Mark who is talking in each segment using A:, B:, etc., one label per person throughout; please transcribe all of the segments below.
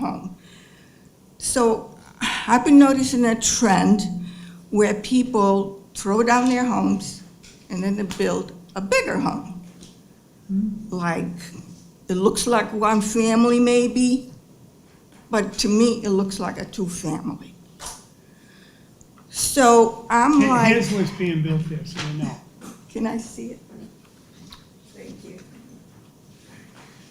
A: home. So I've been noticing a trend where people throw down their homes and then they build a bigger home. Like, it looks like one family maybe, but to me, it looks like a two-family. So I'm
B: Here-
A: like.
B: Here's what's being built there, so you know.
A: Can I see it? Thank you.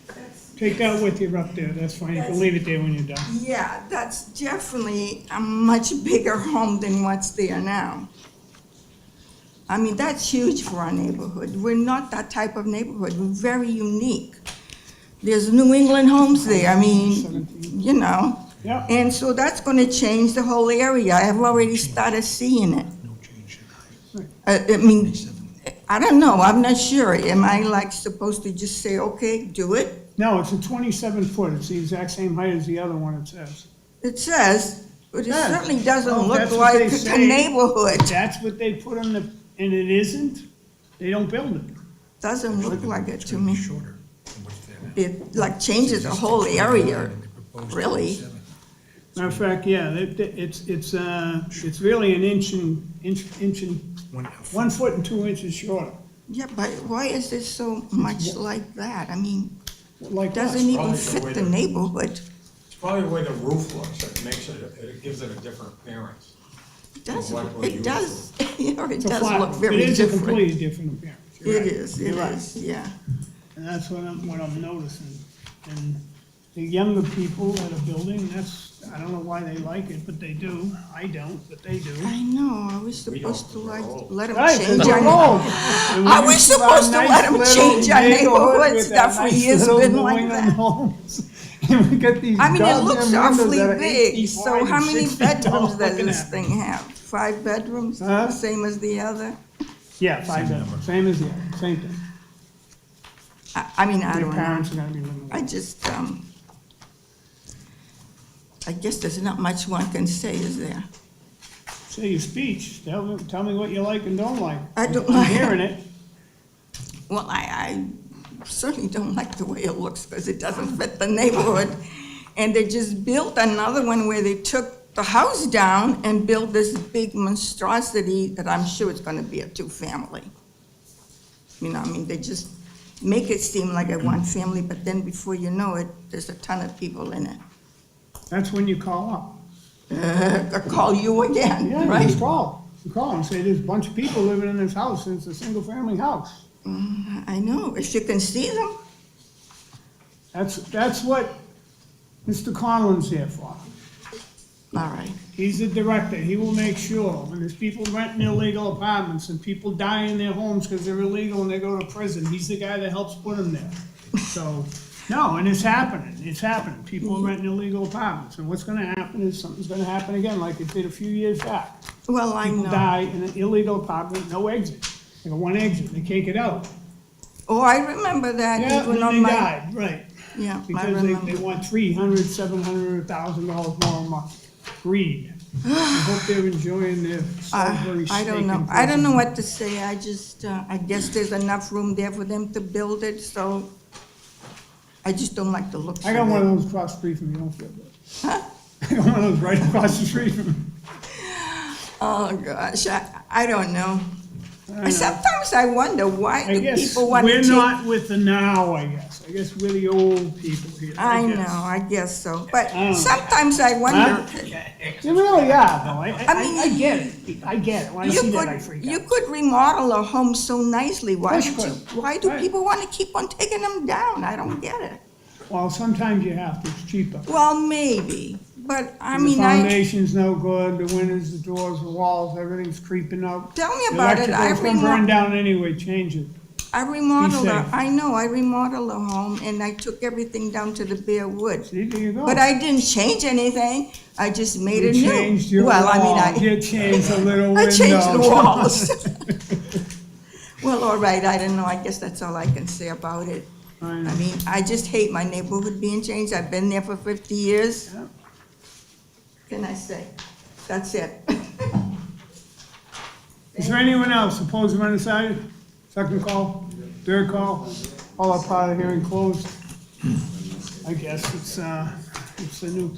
A: That's-
B: Take that with you up there, that's fine, you can leave it there when you're done.
A: Yeah, that's definitely a much bigger home than what's there now. I mean, that's huge for our neighborhood. We're not that type of neighborhood. We're very unique. There's New England homes there, I mean, you know.
B: Yep.
A: And so that's gonna change the whole area. I've already started seeing it.
C: No change
A: I, I mean, I don't know, I'm not sure. Am I like supposed to just say, okay, do it?
B: No, it's a twenty-seven foot, it's the exact same height as the other one it says.
A: It says, but it
B: Yeah.
A: certainly doesn't
B: Well,
A: look
B: that's what they
A: like a
B: say.
A: neighborhood.
B: That's what they put on the, and it isn't, they don't build it.
A: Doesn't look like it to me.
C: Shorter than what's there now.
A: It like changes the whole area.
C: And they proposed
A: really.
C: 27.
B: Matter of fact, yeah, they- they- it's, it's, uh, it's really an inch and, inch, inch and,
C: One-
B: one foot and two inches shorter,
A: Yeah, but why is it so much like that? I mean,
B: like
A: it
B: us.
A: doesn't e, even
D: probably the way
A: fit the
D: to-
A: neighborhood,
D: It's probably the way the roof looks, it makes it, it gives it a different appearance.
A: does,
D: Well, why would you-
A: it does, you know, it
B: It's a
A: does
B: flat
A: look
B: roof.
A: very
B: It is a
A: different.
B: completely different appearance.
A: It
B: You're right.
A: is, it
B: You're right.
A: is, yeah.
B: And that's what I'm, what I'm noticing. And the younger people that are building, that's, I don't know why they like it, but they do. I don't, but they do.
A: I know, I was
D: We don't,
A: supposed to
D: we're
A: like,
D: old.
A: let them
B: Right,
A: change
B: we're
A: our
B: old. And
A: Are we
B: used have
A: supposed to
B: nice
A: let 'em
B: little
A: change our
B: neighborhood
A: neighborhoods?
B: with
A: That for
B: our nice
A: years
B: little
A: been like
B: New England
A: that.
B: homes. And we got these
A: I mean, it looks
B: goddamn windows
A: awfully
B: that are eight
A: big,
B: feet
A: so
B: wide
A: how
B: and
A: many
B: six feet tall.
A: bedrooms does
B: Look at
A: this
B: that.
A: thing have? Five bedrooms,
B: Huh?
A: same as the other?
B: Yeah, five bedrooms, same as the other, same thing.
A: I, I mean, I
B: Their
A: don't know.
B: parents are gonna be living
A: I
B: there.
A: just, um, I guess there's not much one can say, is there?
B: Say your speech, tell me, tell me what you like and don't like.
A: I don't
B: I'm
A: like-
B: hearing it.
A: Well, I, I certainly don't like the way it looks because it doesn't fit the neighborhood. And they just built another one where they took the house down and built this big monstrosity that I'm sure it's gonna be a two-family. You know, I mean, they just make it seem like a one-family, but then before you know it, there's a ton of people in it.
B: That's when you call up.
A: They'll call you again,
B: Yeah, you
A: right?
B: just call, you call and say, there's a bunch of people living in this house, and it's a single-family house.
A: I know, if you can see them,
B: That's, that's what Mr. Conlon's here for.
A: all right.
B: He's the director, he will make sure, when there's people renting illegal apartments, and people die in their homes because they're illegal and they go to prison, he's the guy that helps put them there. So, no, and it's happening, it's happening, people are renting illegal apartments, and what's gonna happen is, something's gonna happen again, like it did a few years back.
A: Well, I
B: People
A: know.
B: die in an illegal apartment, no exit, they got one exit, they can't get out.
A: Oh, I remember that
B: Yeah,
A: even
B: when
A: on
B: they
A: my,
B: died, right,
A: yeah, I
B: because they,
A: remember.
B: they want three hundred, seven hundred, thousand dollars more a month, greed. I hope they're enjoying their
A: I
B: Salisbury
A: Ah, I
B: steak
A: don't
B: and
A: know, I don't
B: fries.
A: know what to say, I just, uh, I guess there's enough room there for them to build it, so I just don't like the looks of it.
B: I got one of those across the street from you, don't feel bad. I got one of those right across the street from you.
A: Oh, gosh, I, I don't know.
B: I know.
A: Sometimes I wonder why
B: I
A: do
B: guess
A: people want to
B: we're
A: take.
B: not with the now, I guess, I guess we're the old people here, I
A: I know,
B: guess.
A: I guess so, but
B: I don't know.
A: sometimes I wonder,
B: You really are, though, I, I,
A: mean,
B: I get it, I get it, when I
A: you
B: see that, I
A: could,
B: freak
A: you
B: out.
A: could remodel a home so nicely, why
B: course
A: do
B: you
A: you,
B: could.
A: why do
B: Right.
A: people want to keep on taking them down? I don't get it.
B: Well, sometimes you have to, it's cheaper.
A: Well, maybe, but I
B: The
A: mean, I,
B: foundation's no good, the windows, the doors, the walls, everything's creeping up.
A: tell me about it, I
B: Electrical's gonna burn
A: remodel.
B: down anyway, change it.
A: I remodeled, a-
B: safe.
A: I know, I remodeled a home and I took everything down to the bare wood.
B: See, there you go.
A: But I didn't change anything, I just made
B: You
A: it new.
B: changed your
A: Well, I mean,
B: wall,
A: I-
B: You changed the little window.
A: I changed the walls. Well, all right, I don't know, I guess that's all I can say about it.
B: I
A: I
B: know.
A: mean, I just hate my neighborhood being changed, I've been there for fifty years.
B: Yep.
A: Can I say? That's it.
B: Is there anyone else opposed or undecided? Second call, third call, all up out of here and closed. I guess it's, uh, it's the new